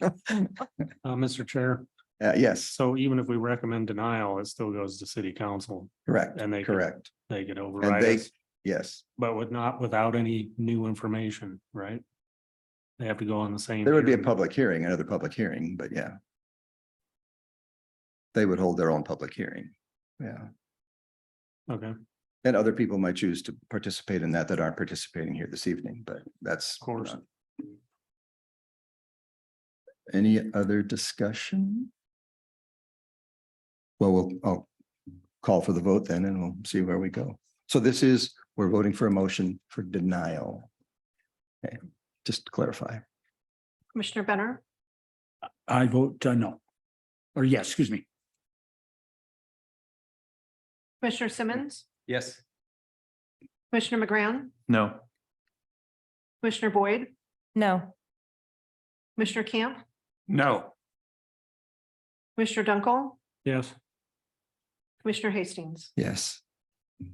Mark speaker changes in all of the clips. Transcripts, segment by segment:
Speaker 1: Uh, Mr. Chair,
Speaker 2: Uh, yes,
Speaker 1: so even if we recommend denial, it still goes to city council
Speaker 2: correct,
Speaker 1: and they. could-
Speaker 2: correct.
Speaker 1: They could
Speaker 2: And
Speaker 1: override
Speaker 2: they,
Speaker 1: us,
Speaker 2: yes,
Speaker 1: but with not, without any new information, right? They have to go on the same.
Speaker 2: there would be a
Speaker 1: hearing.
Speaker 2: public hearing, another public hearing, but yeah. They would hold their own public hearing. Yeah,
Speaker 1: Okay, of
Speaker 2: and other people might choose to participate in that that aren't participating here this evening, but that's. Of
Speaker 1: course.
Speaker 2: Any other discussion? Well, we'll, I'll call for the vote then and we'll see where we go. So this is, we're voting for a motion for denial. Okay, just to clarify.
Speaker 3: Commissioner Benner,
Speaker 4: I vote uh, no. Or yes, excuse me.
Speaker 3: Commissioner Simmons,
Speaker 5: Yes.
Speaker 3: Commissioner McGround,
Speaker 5: No.
Speaker 3: Commissioner Boyd,
Speaker 6: No,
Speaker 3: Commissioner Camp,
Speaker 5: No.
Speaker 3: Commissioner Dunkel,
Speaker 1: yes,
Speaker 3: Commissioner Hastings.
Speaker 2: Yes,
Speaker 3: The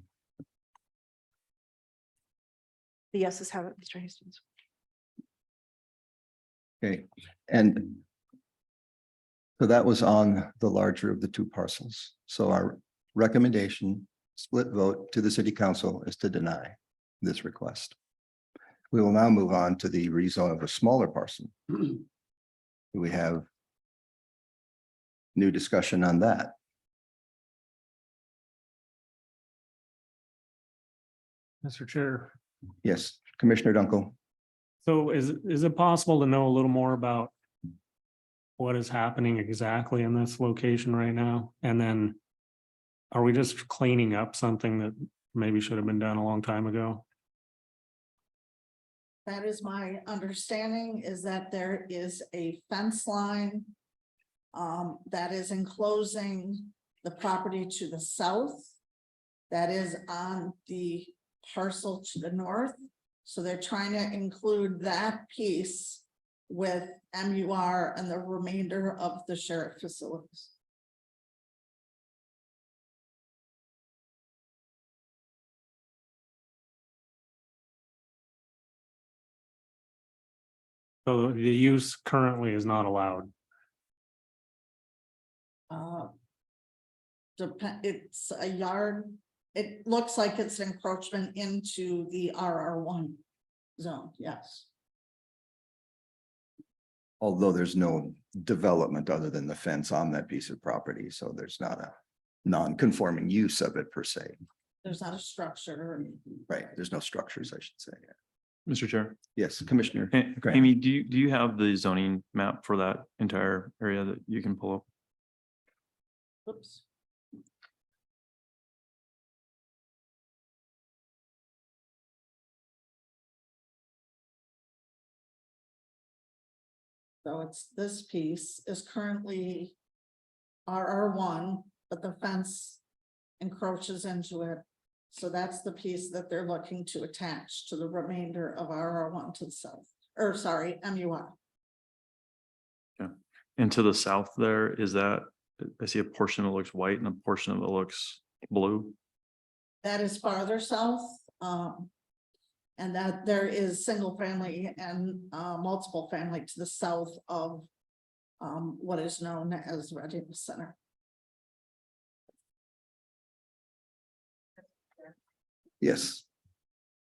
Speaker 3: yeses have it, Mr. Hastings.
Speaker 2: okay, and so that was on the larger of the two parcels. So our recommendation, split vote to the city council is to deny this request. We will now move on to the rezone of a smaller parcel. Do We have new discussion on that.
Speaker 1: Mr. Chair.
Speaker 2: Yes, Commissioner Dunkel.
Speaker 1: So is, is it possible to know a little more about what is happening exactly in this location right now? And then are we just cleaning up something that maybe should have been done a long time ago?
Speaker 7: That is my understanding is that there is a fence line. um, that is enclosing the property to the south. That is on the parcel to the north. So they're trying to include that piece with M U R and the remainder of the sheriff facilities.
Speaker 1: So the use currently is not allowed.
Speaker 7: Uh, Depend, it's a yard, it looks like it's an encroachment into the RR one zone, yes.
Speaker 2: although there's no development other than the fence on that piece of property, so there's not a non-conforming use of it per se,
Speaker 7: There's not a structure or anything.
Speaker 2: right? There's no structures, I should say.
Speaker 5: Mr. Chair,
Speaker 2: Yes, Commissioner.
Speaker 5: A-
Speaker 2: Grant.
Speaker 5: Amy, do you, do you have the zoning map for that entire area that you can pull up?
Speaker 7: Oops. So it's, this piece is currently RR one, but the fence encroaches into it. So that's the piece that they're looking to attach to the remainder of RR one to the south, or sorry, MUR.
Speaker 5: And to the south there, is that, I see a portion that looks white and a portion of it looks blue.
Speaker 7: That is farther south, um. And that there is single family and uh multiple family to the south of. Um, what is known as Reading Center.
Speaker 2: Yes,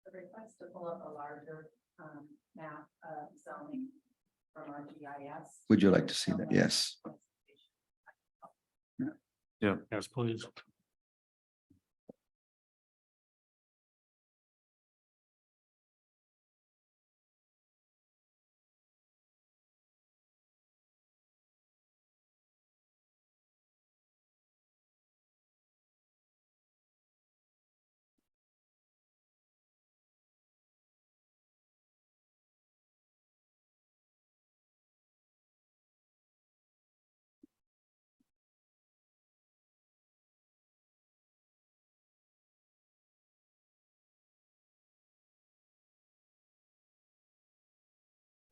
Speaker 8: the request to pull up a larger um map of zoning from our GIS.
Speaker 2: would you like to see that? Yes,
Speaker 1: Yes, please.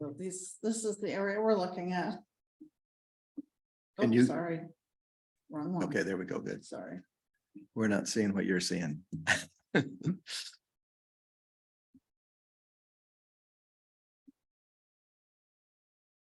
Speaker 7: So This, this is the area we're looking at.
Speaker 2: And
Speaker 7: Oh,
Speaker 2: you-
Speaker 7: Sorry. Wrong one.
Speaker 2: okay, there we go, good.
Speaker 7: Sorry.
Speaker 2: We're not seeing what you're seeing.